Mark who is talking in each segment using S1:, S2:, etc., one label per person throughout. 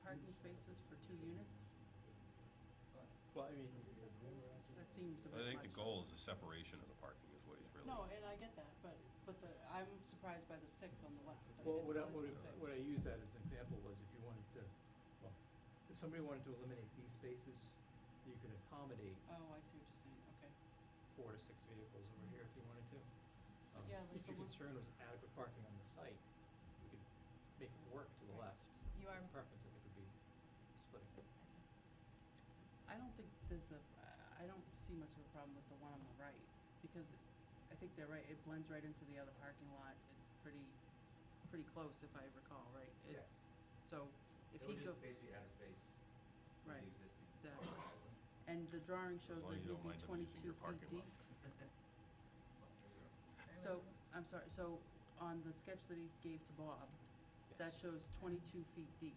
S1: services for two units?
S2: Well, I mean,
S1: That seems a bit
S3: I think the
S1: much.
S3: goal is the separation of the parking is what he's really.
S1: No, and I get that, but, but the, I'm surprised by the six on the left. I
S2: well,
S1: didn't
S2: what I,
S1: notice
S2: what
S1: the
S2: I-
S1: six.
S2: what I used that as an example was if you wanted to, well, if somebody wanted to eliminate these spaces, you could accommodate
S1: Oh, I see what you're saying, okay.
S2: four to six vehicles over here if you wanted to. Um,
S1: Yeah, like
S2: If
S1: the
S2: your
S1: one-
S2: concern was adequate parking on the site, you could make it work to the left.
S4: You are-
S2: Preference, I think, would be
S4: I see.
S2: splitting.
S1: I don't think there's a, I don't see much of a problem with the one on the right, because I think they're right, it blends right into the other parking lot, it's pretty, pretty close if I recall, right? It's- So if he
S5: It would just
S1: go,
S5: basically add a space to the
S1: Right,
S5: existing.
S1: exactly. and the drawing shows
S3: long
S1: that
S3: as
S1: he'd
S3: you
S1: be
S3: don't mind them using your
S1: twenty-two feet
S3: parking
S1: deep. So,
S3: lot.
S1: I'm sorry, so on the sketch that he gave to Bob, that
S2: Yes.
S1: shows twenty-two feet deep.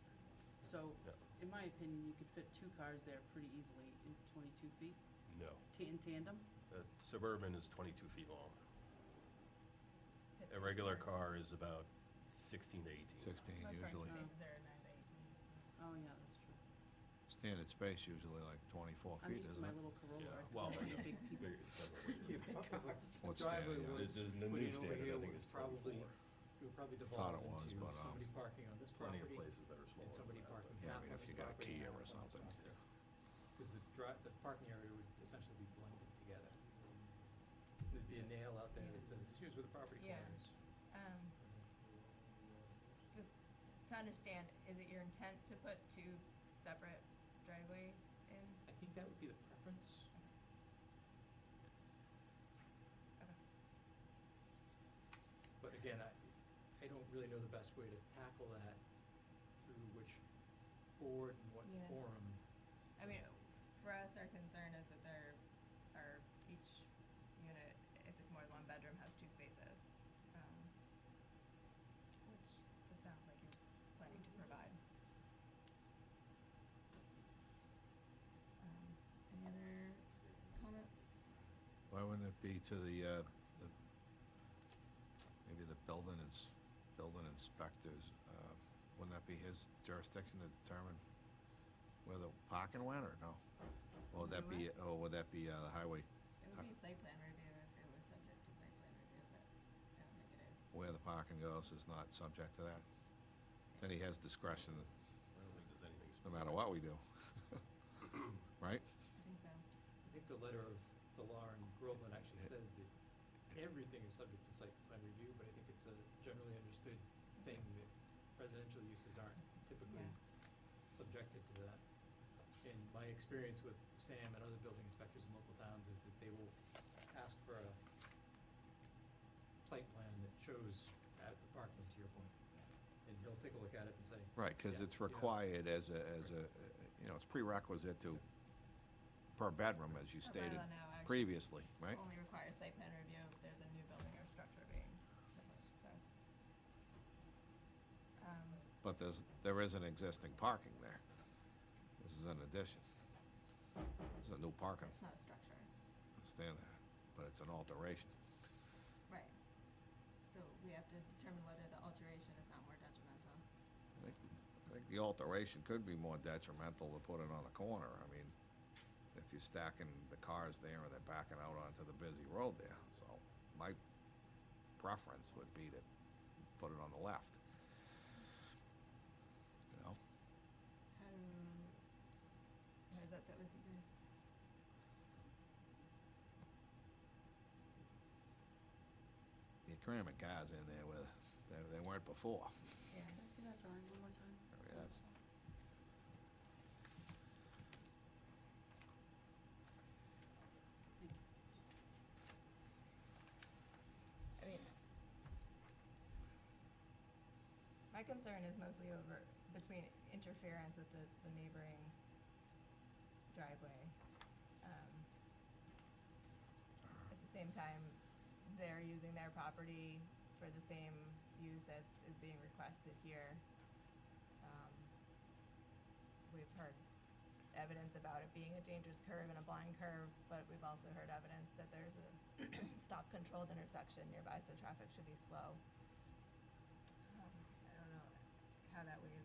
S1: So,
S3: Yeah.
S1: in my opinion, you could fit two cars there pretty easily in twenty-two feet,
S3: No,
S1: ta- in tandem.
S3: The Suburban is 22 feet long. A regular car is about 16 to 18.
S6: 16
S4: Most parking
S6: usually.
S1: Um,
S4: spaces are nine to eighteen.
S1: Oh, yeah, that's true.
S6: Standard space usually like 24
S1: I'm
S6: feet,
S1: used to
S6: isn't
S1: my
S6: it?
S1: little Corolla, oh, I
S3: Yeah,
S1: feel
S3: well,
S1: like
S3: I
S1: the
S3: know.
S1: big people.
S3: Big- that's what we're doing.
S2: If the
S6: What's standard,
S2: driveway
S6: yeah.
S2: was
S3: The- the- the
S2: put
S3: new
S2: in over
S3: standard, I
S2: here,
S3: think,
S2: would
S3: is
S2: probably,
S3: 24.
S2: you would probably
S6: Thought
S2: devolve
S6: it was,
S2: into
S6: but, um,
S2: somebody parking on this
S3: plenty
S2: property.
S3: of places that are smaller
S2: And somebody
S3: than that,
S2: parking
S3: but-
S6: Yeah,
S2: half
S6: I mean,
S2: on
S6: if
S2: this
S6: you got a
S2: property and
S6: Kia
S2: half on
S6: or
S2: this
S6: something.
S2: property. Because the dri, the parking area would essentially be blended together. There'd be a nail out there that says, here's where the property
S4: Yeah.
S2: corner is.
S4: Um, just to understand, is it your intent to put two separate driveways
S2: I
S4: in?
S2: think that would be the preference.
S4: Okay.
S2: But again, I, I don't really know the best way to tackle that through which board and what
S4: Yeah.
S2: forum.
S4: I mean, for us, our concern is that there are, each unit, if it's more than one bedroom, has two spaces. um, Which it sounds like you're planning to provide. Um, Any other comments?
S6: Why wouldn't it be to the, uh, the- maybe the building is, building inspectors? uh, Wouldn't that be his jurisdiction to determine where the parking went or no? Or would that
S4: Do
S6: be,
S4: what?
S6: or would that be uh, the highway?
S4: It would be site plan review if it was subject to site plan review, but I don't think it is.
S6: Where the parking goes is not subject to that? Then he has discretion,
S3: I don't think there's anything specific.
S6: no matter what we do. Right?
S4: I think so.
S2: I think the letter of the law in Groveland actually says that everything is subject to site plan review, but I think it's a generally understood thing that residential uses aren't typically
S4: Yeah.
S2: subjected to that. And my experience with Sam and other building inspectors in local towns is that they will ask for a site plan that shows adequate parking, to your point. And he'll take a look at it and say.
S6: Right, because
S2: "Yeah,
S6: it's
S2: you know,
S6: required as a, as a, you know, it's prerequisite to, per bedroom, as you
S4: Per
S6: stated
S4: bylaw now, actually.
S6: previously, right?
S4: Only requires site plan review if there's a new building or structure being proposed, so. Um,
S6: But there's, there is an existing parking there. This is an addition. This is a new parking,
S4: It's not a structure,
S6: stand there, but it's an alteration.
S4: right. So we have to determine whether the alteration is not more detrimental.
S6: I think, I think the alteration could be more detrimental to put it on the corner. I mean, if you're stacking the cars there and they're backing out onto the busy road there. So my preference would be to put it on the left. You know?
S4: How do, how does that sit with you guys?
S6: You're cramming cars in there with, they, they weren't before.
S4: Yeah.
S1: Can I see that drawing one more time?
S6: Yeah, that's-
S1: Thank you.
S4: I mean, my concern is mostly over, between interference with the, the neighboring driveway. Um, At the same time, they're using their property for the same use as is being requested here. Um, We've heard evidence about it being a dangerous curve and a blind curve, but we've also heard evidence that there's a stop-controlled intersection nearby, so traffic should be slow. Um, I don't know how that weighs